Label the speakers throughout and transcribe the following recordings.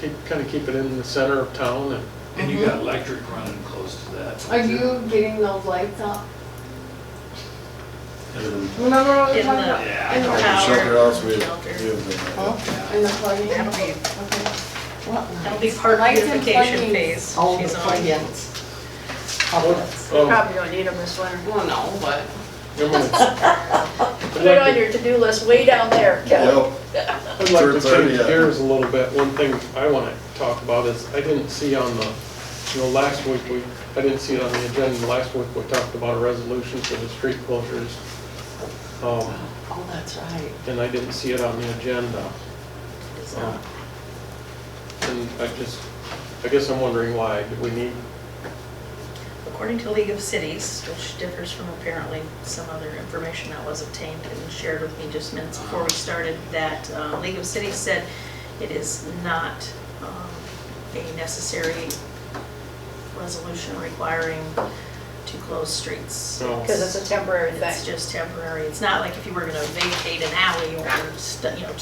Speaker 1: keep, kind of keep it in the center of town and
Speaker 2: And you got electric running close to that.
Speaker 3: Are you getting those lights up?
Speaker 2: And
Speaker 3: Remember what we
Speaker 4: In
Speaker 3: talked
Speaker 4: the-
Speaker 3: about?
Speaker 2: Yeah,
Speaker 3: In the
Speaker 4: power.
Speaker 3: power?
Speaker 5: Shelter house, we, we
Speaker 4: Shelter.
Speaker 5: have uh, been there.
Speaker 3: Huh? In the plug-in?
Speaker 4: That'll be-
Speaker 3: Okay. What?
Speaker 4: That'll be part of
Speaker 3: Lights
Speaker 4: the
Speaker 3: and
Speaker 4: beautification
Speaker 3: plugins.
Speaker 4: phase.
Speaker 6: all the
Speaker 4: She's on.
Speaker 6: plugins. Outlets.
Speaker 1: Oh,
Speaker 7: Probably don't need them this winter.
Speaker 3: Well, no, but
Speaker 1: never mind. I'd
Speaker 7: Put it on
Speaker 1: like to-
Speaker 7: your to-do list way down there, Kevin.
Speaker 5: Yep,
Speaker 1: I'd like to
Speaker 5: Third party,
Speaker 1: change
Speaker 5: yeah.
Speaker 1: gears a little bit. One thing I want to talk about is, I didn't see on the, you know, last week, we, I didn't see it on the agenda. Last week, we talked about a resolution for the street closures. Um,
Speaker 6: Oh, that's right.
Speaker 1: and I didn't see it on the agenda.
Speaker 4: uh,
Speaker 1: Um, And I just, I guess I'm wondering why, do we need,
Speaker 4: According to League of Cities, which differs from apparently some other information that was obtained and shared with me just minutes before we started, that uh, League of Cities said it is not um, a necessary resolution requiring to close streets.
Speaker 1: no,
Speaker 7: Because it's a temporary
Speaker 4: It's
Speaker 7: thing.
Speaker 4: just temporary. It's not like if you were gonna vacate an alley or, stu- you know,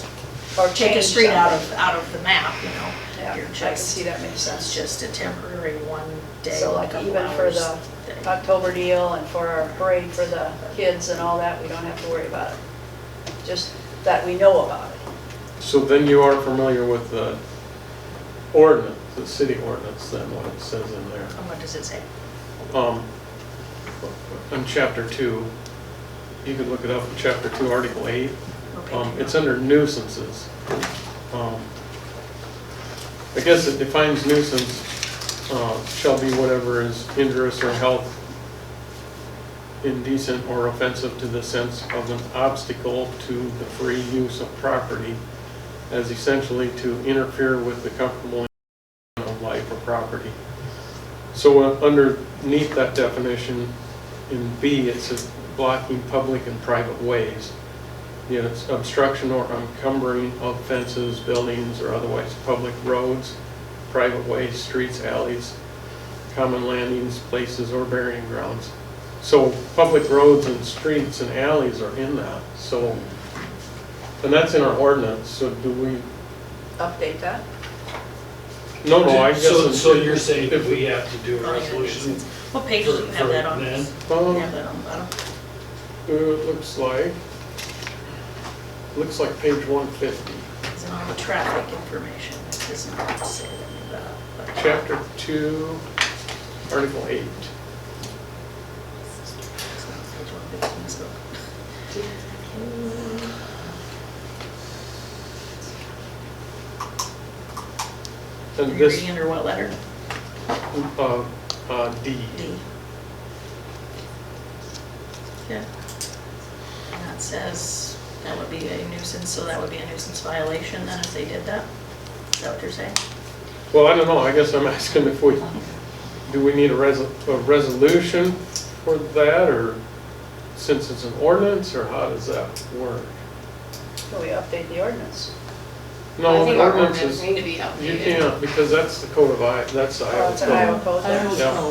Speaker 7: Or
Speaker 4: take a
Speaker 7: change
Speaker 4: street out
Speaker 7: something.
Speaker 4: of, out of the map, you know?
Speaker 7: Yeah,
Speaker 4: You're
Speaker 7: I can
Speaker 4: just-
Speaker 7: see that makes sense.
Speaker 4: It's just a temporary one day,
Speaker 7: So like
Speaker 4: couple
Speaker 7: even for
Speaker 4: hours
Speaker 7: the
Speaker 4: thing.
Speaker 7: October deal and for our parade for the kids and all that, we don't have to worry about it. Just that we know about it.
Speaker 1: So then you are familiar with the ordinance, the city ordinance then, what it says in there.
Speaker 4: And what does it say?
Speaker 1: Um, On chapter two, you could look it up in chapter two, article eight.
Speaker 4: Okay.
Speaker 1: Um, It's under nuisances. Um, I guess it defines nuisance uh, shall be whatever is injurious or health indecent or offensive to the sense of an obstacle to the free use of property as essentially to interfere with the comfortable enjoyment of life or property. So uh, underneath that definition, in B, it says blocking public and private ways. You know, it's obstruction or encumbering of fences, buildings, or otherwise public roads, private ways, streets, alleys, common landings, places, or burying grounds. So public roads and streets and alleys are in that, so, and that's in our ordinance, so do we,
Speaker 7: Update that.
Speaker 1: no, no, Oh, I guess.
Speaker 2: So, so
Speaker 1: in-
Speaker 2: you're saying
Speaker 1: if
Speaker 2: we have to do
Speaker 4: Oh,
Speaker 2: a
Speaker 4: yeah, that makes
Speaker 2: resolution?
Speaker 4: sense. What page do you
Speaker 2: for-
Speaker 4: have
Speaker 2: for
Speaker 4: that on?
Speaker 2: then?
Speaker 4: You
Speaker 1: Um,
Speaker 4: have that on the bottom?
Speaker 1: Uh, It looks like, looks like page 150,
Speaker 4: Is it on the traffic information? It does not say anything about it, but-
Speaker 1: chapter 2, article 8.
Speaker 4: It's not page 115, it's not. Are
Speaker 1: And
Speaker 4: you
Speaker 1: this,
Speaker 4: reading under what letter?
Speaker 1: uh, uh, D.
Speaker 4: D. Yeah. And that says, that would be a nuisance, so that would be a nuisance violation then if they did that? Is that what you're saying?
Speaker 1: Well, I don't know, I guess I'm asking if we, do we need a res, a resolution for that, or since it's an ordinance, or how does that work?
Speaker 7: Can we update the ordinance?
Speaker 1: No,
Speaker 3: I think
Speaker 1: the
Speaker 3: our
Speaker 1: ordinance
Speaker 3: ordinance
Speaker 1: is,
Speaker 3: need to be
Speaker 1: you
Speaker 3: updated.
Speaker 1: can't, because that's the code of I, that's the
Speaker 7: Oh,
Speaker 1: Iowa
Speaker 7: it's an Iowa
Speaker 1: code.
Speaker 7: code
Speaker 6: I
Speaker 7: there.
Speaker 6: don't
Speaker 1: Yeah.
Speaker 6: know.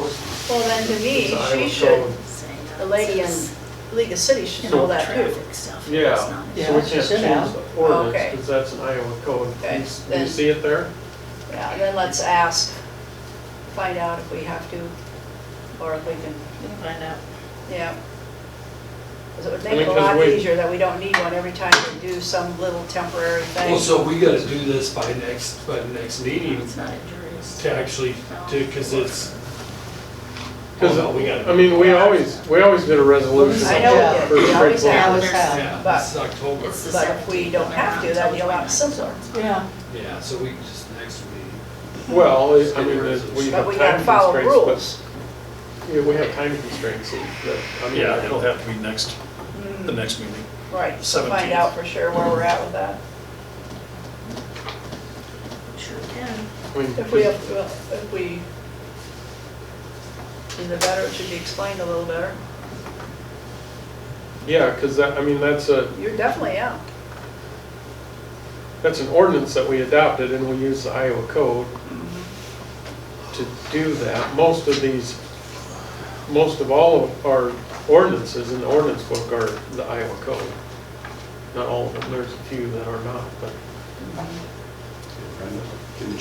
Speaker 7: Well, then to
Speaker 1: It's
Speaker 7: me,
Speaker 1: the Iowa
Speaker 7: she should,
Speaker 1: code.
Speaker 4: Saying that
Speaker 7: the lady in
Speaker 4: says
Speaker 7: League of Cities should
Speaker 4: in
Speaker 7: know
Speaker 4: all
Speaker 7: that too.
Speaker 4: Traffic stuff.
Speaker 1: Yeah.
Speaker 4: It's not-
Speaker 1: So we
Speaker 6: Yeah,
Speaker 1: can't
Speaker 6: she
Speaker 1: change
Speaker 6: should have.
Speaker 1: the ordinance,
Speaker 7: Okay.
Speaker 1: because that's an Iowa code. Do
Speaker 7: Okay,
Speaker 1: you s- Do you
Speaker 7: then-
Speaker 1: see it there?
Speaker 7: Yeah, then let's ask, find out if we have to, or if we can,
Speaker 4: We can Find out.
Speaker 7: yeah. Because it would
Speaker 1: I mean,
Speaker 7: make it a
Speaker 1: 'cause
Speaker 7: lot
Speaker 1: we-
Speaker 7: easier that we don't need one every time we do some little temporary thing.
Speaker 2: Well, so we gotta do this by next, by the next meeting
Speaker 4: It's not injurious.
Speaker 2: to actually, to, cause it's, oh
Speaker 1: Because,
Speaker 2: no, we gotta.
Speaker 1: I mean, we always, we always did a resolution.
Speaker 7: I know
Speaker 1: for
Speaker 7: we did, we always
Speaker 1: straightforward.
Speaker 7: have.
Speaker 6: Now it's out.
Speaker 2: Yeah, this is October,
Speaker 4: It's the
Speaker 7: But if
Speaker 4: 17th,
Speaker 7: we don't
Speaker 4: and they're
Speaker 7: have
Speaker 4: not
Speaker 7: to, that'd be a
Speaker 4: until
Speaker 7: lot
Speaker 4: 29th,
Speaker 7: simpler.
Speaker 4: so
Speaker 6: Yeah,
Speaker 2: yeah, so we can just next meeting.
Speaker 1: Well, it- I mean, it- we
Speaker 7: But
Speaker 1: have
Speaker 7: we
Speaker 1: time
Speaker 7: gotta follow
Speaker 1: constraints,
Speaker 7: rules.
Speaker 1: but, yeah, we have time constraints, and that- I mean.
Speaker 8: Yeah, it'll have to be next, the next meeting.
Speaker 7: Mm, Right, so find
Speaker 8: 17th.
Speaker 7: out for sure where we're at with that.
Speaker 4: Sure can.
Speaker 1: I mean,
Speaker 7: If we have, if we, is it better, it should be explained a little better.
Speaker 1: Yeah, because that, I mean, that's a,
Speaker 7: You're definitely out.
Speaker 1: that's an ordinance that we adopted, and we use the Iowa code to do that. Most of these, most of all of our ordinances in the ordinance book are the Iowa code. Not all of them, there's a few that are not, but.
Speaker 5: Can you